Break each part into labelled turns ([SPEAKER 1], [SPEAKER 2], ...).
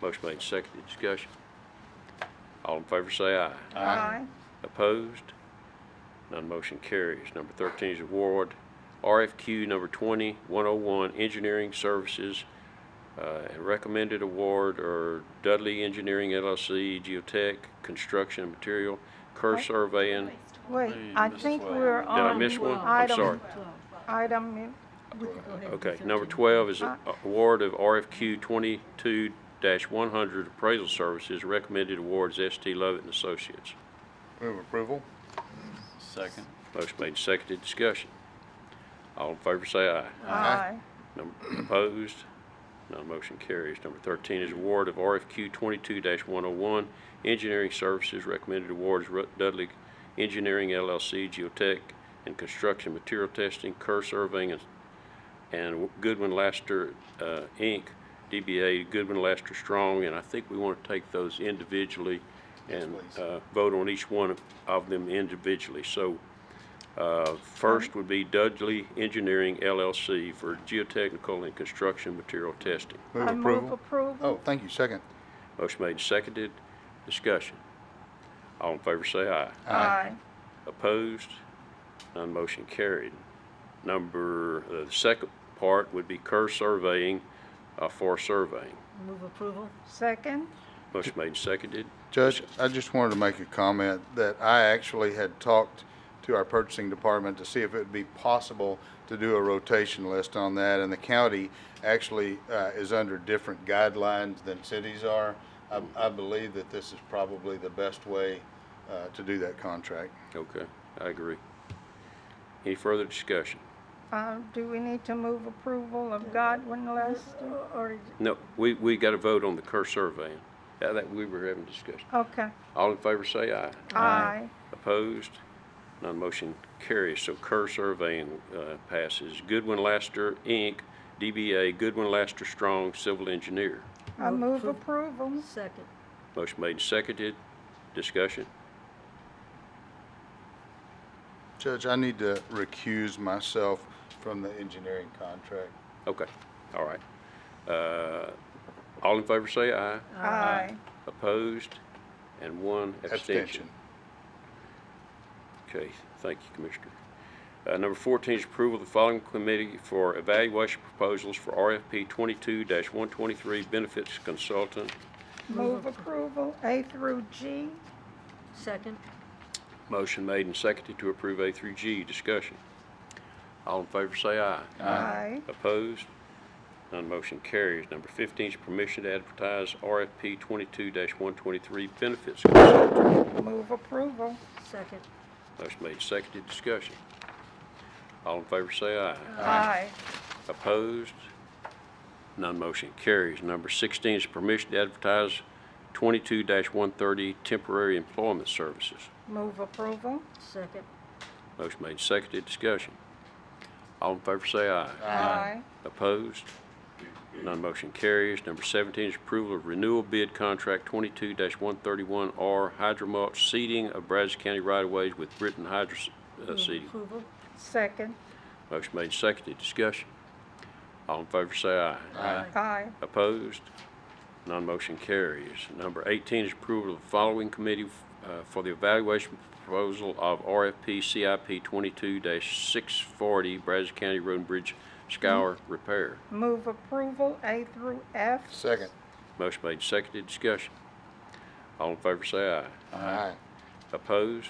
[SPEAKER 1] Motion made, seconded, discussion. All in favor say aye.
[SPEAKER 2] Aye.
[SPEAKER 1] Opposed? None motion carries. Number 13 is award RFQ number 20101, Engineering Services. Uh, and Recommended award are Dudley Engineering LLC, Geotech Construction and Material, Kerr Surveying. Did
[SPEAKER 2] Wait, I think we're
[SPEAKER 1] I
[SPEAKER 2] on.
[SPEAKER 1] miss one? I'm
[SPEAKER 2] item-
[SPEAKER 1] sorry.
[SPEAKER 2] Item, in-
[SPEAKER 1] Okay, number 12 is a-
[SPEAKER 2] Uh-huh.
[SPEAKER 1] award of RFQ 22-100 Appraisal Services. Recommended awards ST Lovett and Associates.
[SPEAKER 3] Move approval.
[SPEAKER 4] Second.
[SPEAKER 1] Motion made, seconded, discussion. All in favor say aye.
[SPEAKER 2] aye.
[SPEAKER 1] Number Opposed? None motion carries. Number 13 is award of RFQ 22-101, Engineering Services, recommended awards Ru- Dudley Engineering LLC, Geotech and Construction Material Testing, Kerr Surveying, and- and Goodwin Laster, uh, Inc., DBA Goodwin Laster Strong, and I think we want to take those individually and
[SPEAKER 3] please.
[SPEAKER 1] uh, vote on each one of- of them individually. So uh, First would be Dudley Engineering LLC for geotechnical and construction material testing.
[SPEAKER 3] Move
[SPEAKER 2] I move
[SPEAKER 3] approval.
[SPEAKER 2] approval.
[SPEAKER 3] Oh, thank you, second.
[SPEAKER 1] Motion made, and seconded. Discussion. All in favor say aye.
[SPEAKER 2] Oh, Aye.
[SPEAKER 1] Opposed? None motion carried. Number, uh, the second part would be Kerr Surveying uh, for surveying.
[SPEAKER 5] Move approval?
[SPEAKER 2] Second,
[SPEAKER 1] Motion made, and seconded.
[SPEAKER 3] Judge, I just wanted to make a comment that I actually had talked to our purchasing department to see if it would be possible to do a rotation list on that, and the county actually uh, is under different guidelines than cities are. I- I believe that this is probably the best way uh, to do that contract.
[SPEAKER 1] Okay, I agree. Any further discussion?
[SPEAKER 2] uh, do we need to move approval of Godwin Lester?
[SPEAKER 5] Or
[SPEAKER 1] No, we, we got to vote on the Kerr Surveying. Uh, That, we were having discussion.
[SPEAKER 2] Okay,
[SPEAKER 1] All in favor say aye.
[SPEAKER 2] aye.
[SPEAKER 1] Opposed? None motion carries, so Kerr Surveying uh, passes. Goodwin Laster, Inc., DBA Goodwin Laster Strong, Civil Engineer.
[SPEAKER 2] I
[SPEAKER 5] Move
[SPEAKER 2] move
[SPEAKER 5] appro-
[SPEAKER 2] approval.
[SPEAKER 5] second?
[SPEAKER 1] Motion made and seconded. Discussion?
[SPEAKER 3] Judge, I need to recuse myself from the engineering contract.
[SPEAKER 1] Okay, all right. Uh, All in favor say aye.
[SPEAKER 2] Aye.
[SPEAKER 1] Opposed? And one abstention.
[SPEAKER 3] Abstention.
[SPEAKER 1] Okay, thank you, Commissioner. Uh, Number 14 is approval of the following committee for evaluation proposals for RFP 22-123 Benefits Consultant.
[SPEAKER 2] Move approval, A through G.
[SPEAKER 5] Second?
[SPEAKER 1] Motion made and seconded to approve A through G. Discussion. All in favor say aye.
[SPEAKER 2] Aye.
[SPEAKER 1] Opposed? None motion carries. Number 15 is permission to advertise RFP 22-123 benefits.
[SPEAKER 2] Move approval.
[SPEAKER 5] Second?
[SPEAKER 1] Motion made, seconded, discussion. All in favor say aye.
[SPEAKER 2] Aye.
[SPEAKER 1] Opposed? None motion carries. Number 16 is permission to advertise 22-130 temporary employment services.
[SPEAKER 2] Move approval.
[SPEAKER 5] Second?
[SPEAKER 1] Motion made, seconded, discussion. All in favor say aye.
[SPEAKER 2] Aye.
[SPEAKER 1] Opposed? None motion carries. Number 17 is approval of renewal bid contract 22-131R Hydromulch seeding of Brazos County right-of-ways with Britton Hydro uh,
[SPEAKER 5] Move
[SPEAKER 1] Seeding.
[SPEAKER 5] approval?
[SPEAKER 2] Second,
[SPEAKER 1] Motion made, and seconded, discussion. All in favor say aye.
[SPEAKER 5] Aye.
[SPEAKER 2] aye.
[SPEAKER 1] Opposed? Non-motion carries. Number 18 is approval of the following committee uh, for the evaluation proposal of RFP CIP 22-640 Brazos County Road and Bridge scour repair.
[SPEAKER 2] Move approval, A through F.
[SPEAKER 3] Second.
[SPEAKER 1] Motion made, and seconded, discussion. All in favor say aye.
[SPEAKER 3] Aye.
[SPEAKER 1] Opposed?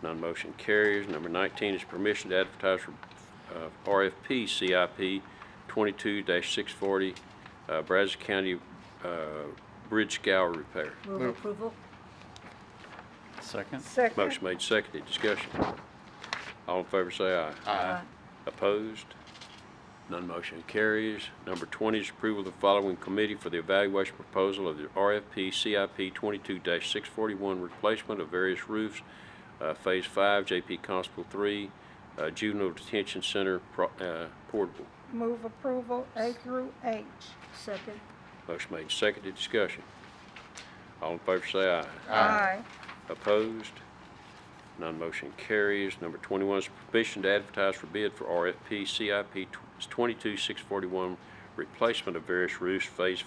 [SPEAKER 1] None motion carries. Number 19 is permission to advertise for uh, RFP CIP 22-640 uh, Brazos County uh, Bridge scour repair.
[SPEAKER 5] Move approval?
[SPEAKER 4] Second.
[SPEAKER 2] Second,
[SPEAKER 1] Motion made, seconded. Discussion. All in favor say aye.
[SPEAKER 5] Aye.
[SPEAKER 1] Opposed? None motion carries. Number 20 is approval of the following committee for the evaluation proposal of the RFP CIP 22-641 replacement of various roofs, uh, Phase 5, JP Constable 3, uh, Juvenile Detention Center pro- uh, portable.
[SPEAKER 2] move approval, A through H.
[SPEAKER 5] Second?
[SPEAKER 1] Motion made, seconded, discussion. All in favor say aye.
[SPEAKER 2] Aye.
[SPEAKER 1] Opposed? None motion carries. Number 21 is permission to advertise for bid for RFP CIP 22641, replacement of various roofs, Phase